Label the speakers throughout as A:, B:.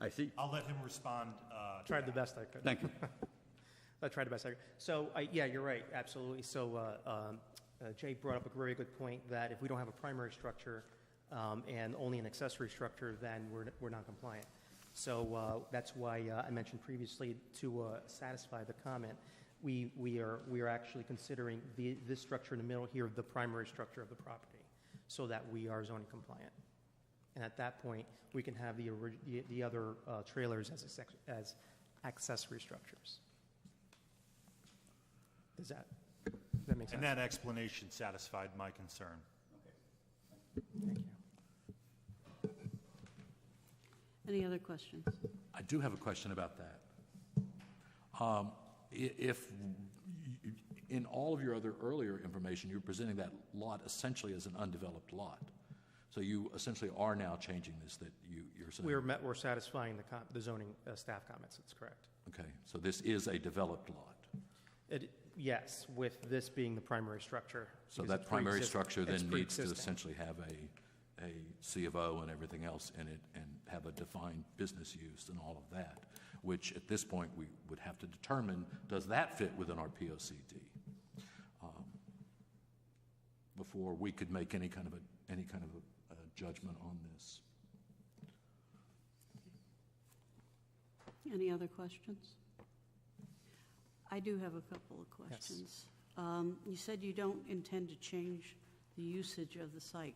A: I see.
B: I'll let him respond. uh, to
C: Tried the
B: that.
C: best I could.
A: Thank you.
C: I tried the best I could. So, I- yeah, you're right, absolutely. So uh, um, uh, Jay brought up a very good point that if we don't have a primary structure um, and only an accessory structure, then we're we're non-compliant. So uh, that's why uh, I mentioned previously, to uh, satisfy the comment, we we are, we are actually considering the this structure in the middle here, the primary structure of the property, so that we are zoning compliant. And at that point, we can have the orig- the- the other uh, trailers as access- as accessory structures. Does that, does that make sense?
B: And that explanation satisfied my concern.
C: Thank you.
D: Any other questions?
E: I do have a question about that. Um, i- If, you- in all of your other earlier information, you were presenting that lot essentially as an undeveloped lot. So you essentially are now changing this, that you, you're saying.
C: We're met, we're satisfying the com- the zoning uh, staff comments, that's correct.
E: Okay, so this is a developed lot.
C: It, yes, with this being the primary structure.
E: So
C: because
E: that
C: it's
E: primary
C: pre-exist-
E: structure
C: it's
E: then needs to
C: pre-existing.
E: essentially have a, a C of O and everything else in it, and have a defined business use and all of that, which at this point, we would have to determine, does that fit within our P O C D? Before we could make any kind of a, any kind of a a judgment on this.
D: Any other questions? I do have a couple of questions. Um, You said you don't intend to change the usage of the site.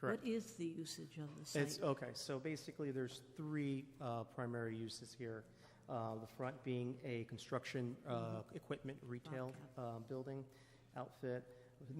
C: Correct.
D: What is the usage of the
C: It's,
D: site?
C: okay, so basically, there's three uh, primary uses here. Uh, The front being a construction uh, equipment retail uh, building outfit,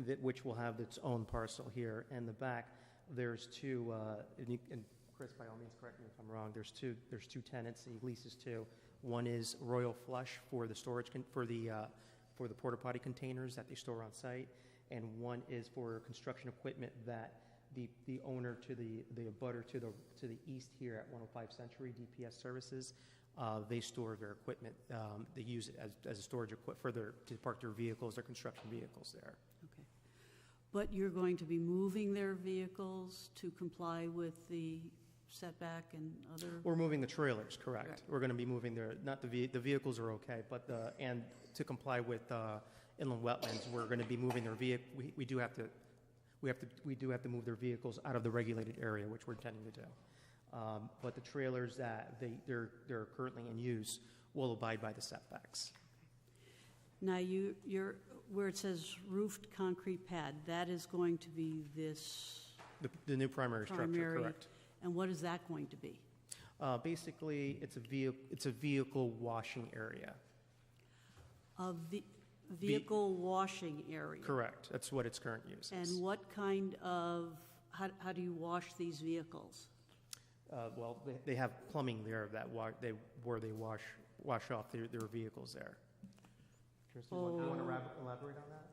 C: that- which will have its own parcel here. And the back, there's two, uh, and you- and Chris, by all means, correct me if I'm wrong, there's two, there's two tenants, he leases two. One is Royal Flush for the storage, con- for the, uh, for the porta potty containers that they store on site, and one is for construction equipment that the, the owner to the, the abutter to the, to the east here at 105 Century DPS Services. Uh, they store their equipment, um, they use it as, as a storage equip, for their, to park their vehicles, their construction vehicles there.
D: Okay. But you're going to be moving their vehicles to comply with the setback and other,
C: We're moving the trailers, correct?
D: Correct.
C: We're gonna be moving their, not the ve, the vehicles are okay, but the, and to comply with, uh, inland wetlands, we're gonna be moving their vehi, we, we do have to, we have to, we do have to move their vehicles out of the regulated area, which we're intending to do. Um, but the trailers that they, they're, they're currently in use will abide by the setbacks.
D: now you, you're, where it says roofed concrete pad, that is going to be this
C: The, the new primary structure,
D: primary?
C: correct.
D: And what is that going to be?
C: Uh, basically, it's a vehi, it's a vehicle washing area.
D: A ve- vehicle washing area?
C: Correct, that's what its current use is.
D: And what kind of, how, how do you wash these vehicles?
C: Uh, well, they, they have plumbing there that wa, they, where they wash, wash off their, their vehicles there. Kirsten, you want- you want to elabor- elaborate on that?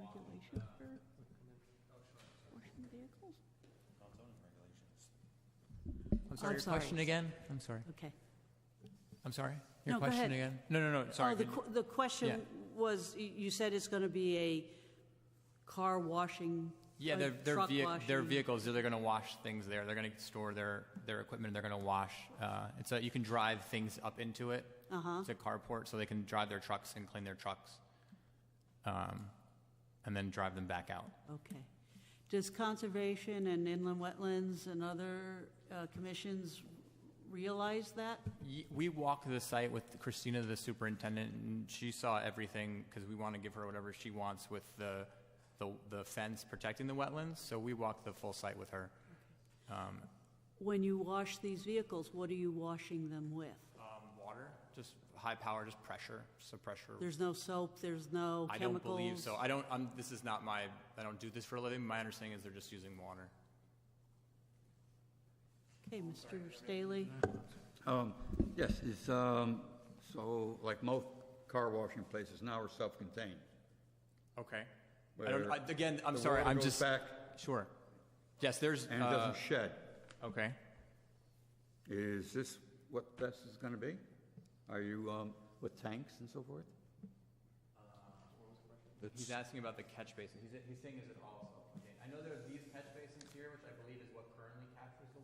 F: regulation for washing vehicles?
G: I'm
D: I'm
G: sorry, your
D: sorry.
G: question again? I'm sorry.
D: Okay.
G: I'm sorry? Your
D: No, go
G: question
D: ahead.
G: again? No, no, no, sorry.
D: Oh, the,
G: Can-
D: qu- the question was, y- you said it's going to be a car washing?
G: Yeah,
D: a
G: their, their
D: truck
G: vehi- their
D: washing.
G: vehicles, they're gonna wash things there. They're gonna store their, their equipment, they're gonna wash. Uh, and so you can drive things up into it.
D: Uh-huh.
G: It's a carport, so they can drive their trucks and clean their trucks. Um, and then drive them back out.
D: Okay. Does Conservation and Inland Wetlands and other uh, commissions realize that?
G: Ye- We walked the site with Christina, the superintendent, and she saw everything because we want to give her whatever she wants with the, the, the fence protecting the wetlands. So we walked the full site with her. Um,
D: When you wash these vehicles, what are you washing them with?
G: um, water, just high power, just pressure, so pressure.
D: There's no soap, there's no
G: I don't
D: chemicals?
G: believe so. I don't, I'm, this is not my, I don't do this for a living. My understanding is they're just using water.
D: Okay, Mr. Staley?
A: Um, Yes, it's, um, so like most car washing places now are self-contained.
G: Okay. I don't,
A: Where
G: I, again, I'm
A: the
G: sorry,
A: water
G: I'm
A: goes
G: just.
A: back
G: Sure. Yes, there's,
A: and it
G: uh,
A: doesn't shed.
G: okay.
A: Is this what this is going to be? Are you um, with tanks and so forth?
G: He's asking about the catch basin. He's, he's saying is it all self-contained? I know there are these catch basins here, which I